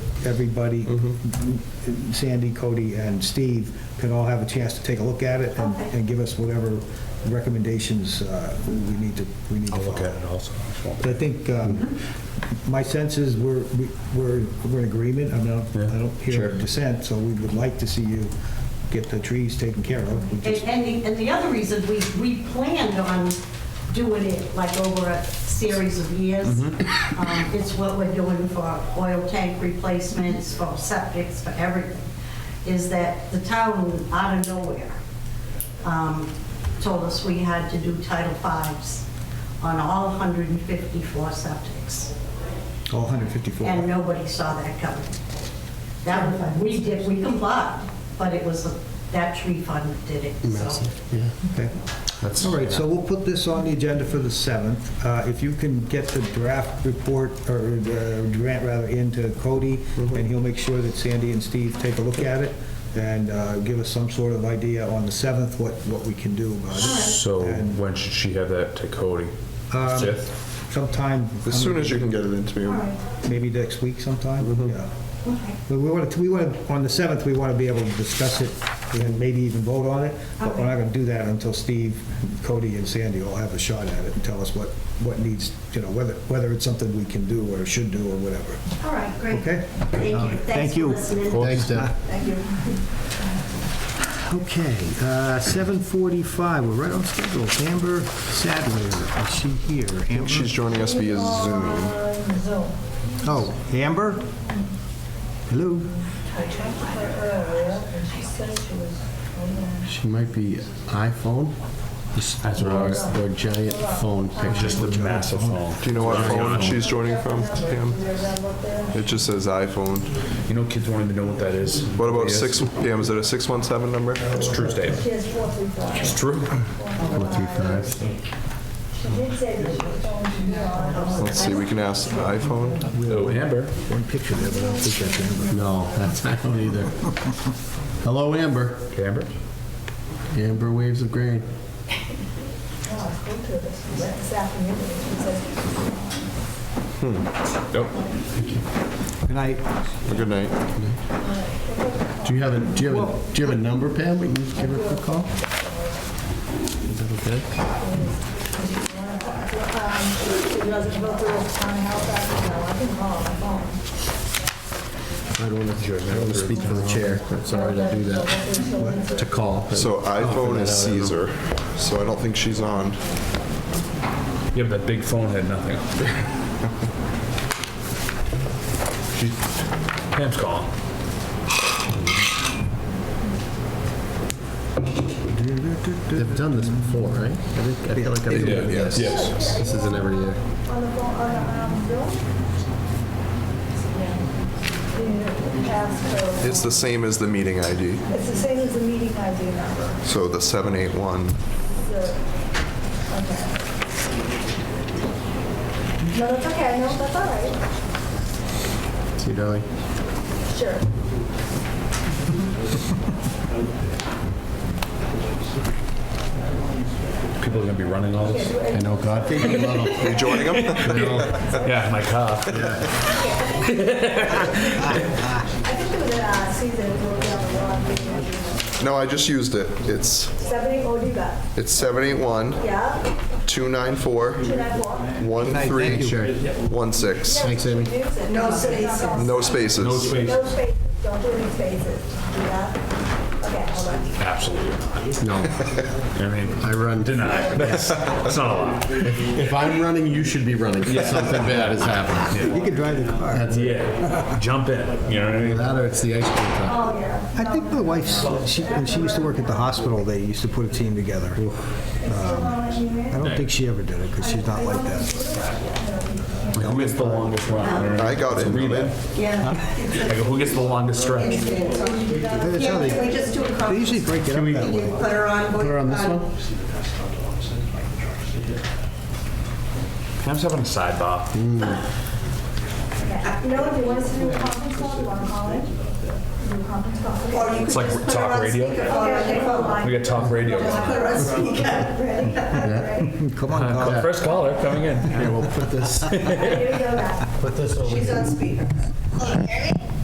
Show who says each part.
Speaker 1: everybody, Sandy, Cody, and Steve, can all have a chance to take a look at it and-
Speaker 2: Okay.
Speaker 1: and give us whatever recommendations uh, we we need to, we need to
Speaker 3: I'll look
Speaker 1: follow.
Speaker 3: at it also.
Speaker 1: But I think, um, my sense is we're, we- we're, we're in agreement, I mean, I don't- I don't hear
Speaker 3: Sure.
Speaker 1: dissent, so we would like to see you get the trees taken care of. We
Speaker 2: And,
Speaker 1: just-
Speaker 2: and the, and the other reason, we, we planned on doing it like over a series of years. Um, It's what we're doing for oil tank replacements, for septics, for everything, is that the town out of nowhere um, told us we had to do Title Fives on all 154 septics
Speaker 1: All 154.
Speaker 2: and nobody saw that coming. That, we did, we complied, but it was, that tree fund did it, so.
Speaker 3: yeah.
Speaker 1: Okay.
Speaker 3: That's,
Speaker 1: All right, so we'll put this on the agenda for the 7th. Uh, If you can get the draft report, or the grant rather, into Cody,
Speaker 4: Mm-hmm.
Speaker 1: and he'll make sure that Sandy and Steve take a look at it, and uh, give us some sort of idea on the 7th, what, what we can do about it.
Speaker 5: So when should she have that to Cody?
Speaker 1: Um,
Speaker 5: Fifth?
Speaker 1: Sometime,
Speaker 4: As soon as you Mm-hmm. can get it into
Speaker 2: All
Speaker 4: me.
Speaker 2: right,
Speaker 1: maybe next week sometime, yeah.
Speaker 2: okay.
Speaker 1: But we want to, we want, to on the 7th, we want to be able to discuss it and maybe even vote on it, but we're not going to do that until Steve, Cody, and Sandy all have a shot at it and tell us what, what needs, you know, whether, whether it's something we can do or should do or whatever.
Speaker 2: All right, great.
Speaker 1: Okay.
Speaker 2: Thank you.
Speaker 1: Thank
Speaker 2: Thanks for
Speaker 1: you.
Speaker 2: listening.
Speaker 3: Thanks, Deb.
Speaker 2: Thank you.
Speaker 1: Okay, uh, 7:45, we're right on schedule. Amber Sadler, is she here? Amber?
Speaker 4: She's joining us via Zoom.
Speaker 1: Oh, Amber? Hello?
Speaker 3: She might be iPhone. That's what I was. Or giant phone picture.
Speaker 5: Just the massive phone.
Speaker 4: Do you know what
Speaker 5: Sorry,
Speaker 4: phone
Speaker 5: iPhone.
Speaker 4: she's joining from, Pam? It just says iPhone.
Speaker 5: You know, kids won't even know what that is.
Speaker 4: What about
Speaker 5: Yes.
Speaker 4: six, Pam, is it a 617 number?
Speaker 5: It's true, Dave. It's true.
Speaker 3: Four, three, five.
Speaker 4: Let's see, we can ask iPhone.
Speaker 5: Oh, Amber.
Speaker 1: One picture there, but I don't think that's Amber.
Speaker 3: No, that's, I don't either. Hello, Amber.
Speaker 5: Okay, Amber?
Speaker 3: Amber waves of grain.
Speaker 5: Nope.
Speaker 1: Hmm. Good night.
Speaker 4: Good night.
Speaker 3: Do you have a, do you have a, do you have a number, Pam? We can just give her a quick call? Is that okay? I don't want to, I don't want to speak for the chair. I'm sorry to do that. To call. but-
Speaker 4: So iPhone is
Speaker 3: I don't know.
Speaker 4: Caesar, so I don't think she's on.
Speaker 5: Yeah, but that big phone had nothing. She, Pam's calling.
Speaker 3: They've done this before, right? I think- I feel like I've
Speaker 5: did, yes. Yes.
Speaker 3: This isn't every year.
Speaker 6: On the phone, on the, um, bill? The passcode.
Speaker 4: It's the same as the meeting ID,
Speaker 6: It's the same as the meeting ID number.
Speaker 4: so the 781.
Speaker 6: The- Okay. No, that's okay, no, that's all right.
Speaker 3: See you, darling.
Speaker 6: Sure.
Speaker 5: People are gonna be running all this.
Speaker 3: I know Godfrey. Love him.
Speaker 4: You joining them?
Speaker 5: Yeah, my car.
Speaker 6: I think it was, uh, Caesar, it was on the wrong meeting ID number.
Speaker 4: No, I just used it. It's,
Speaker 6: Seventy Odiba,
Speaker 4: it's 781
Speaker 6: yeah,
Speaker 4: 294
Speaker 6: two nine four.
Speaker 4: 1316.
Speaker 3: Thanks, Amy.
Speaker 6: No spaces.
Speaker 5: No
Speaker 4: No spaces.
Speaker 5: space.
Speaker 6: No spaces, don't do any spaces, yeah? Okay, hold on.
Speaker 5: Absolutely not.
Speaker 3: No,
Speaker 5: I mean,
Speaker 3: I run.
Speaker 5: deny. That's, that's not a lot.
Speaker 3: If I'm running, you should be running. Something bad has happened.
Speaker 1: You can drive the car.
Speaker 3: That's it.
Speaker 5: Yeah, jump in. You know what I mean?
Speaker 3: That or it's the ice cream truck.
Speaker 6: Oh,
Speaker 1: I think my wife's, she, when she used to work at the hospital, they used to put a team together. Um, I don't think she ever did it, because she's not like that.
Speaker 5: Who gets the longest run?
Speaker 4: I got it.
Speaker 5: Read it.
Speaker 2: Yeah.
Speaker 5: I go, who gets the longest stretch?
Speaker 1: That's how
Speaker 2: Yeah,
Speaker 1: they,
Speaker 2: can we just do a
Speaker 1: they
Speaker 2: conference?
Speaker 1: usually break it up that
Speaker 2: You
Speaker 1: way.
Speaker 2: put her on.
Speaker 3: Put her on this one?
Speaker 5: Pam's having a sidebar.
Speaker 6: You know, if you want us to do a conference call, you want to call it? Do a conference call.
Speaker 2: Or you could
Speaker 5: It's like
Speaker 2: just put her
Speaker 5: talk
Speaker 2: on
Speaker 5: radio.
Speaker 2: speakerphone on your phone.
Speaker 5: We got talk radio.
Speaker 2: Just put her on speaker.
Speaker 1: Come on, Colin.
Speaker 5: First caller coming in.
Speaker 3: Here, we'll put this,
Speaker 6: Here you go, guys.
Speaker 3: put this over here.
Speaker 2: She's on speaker.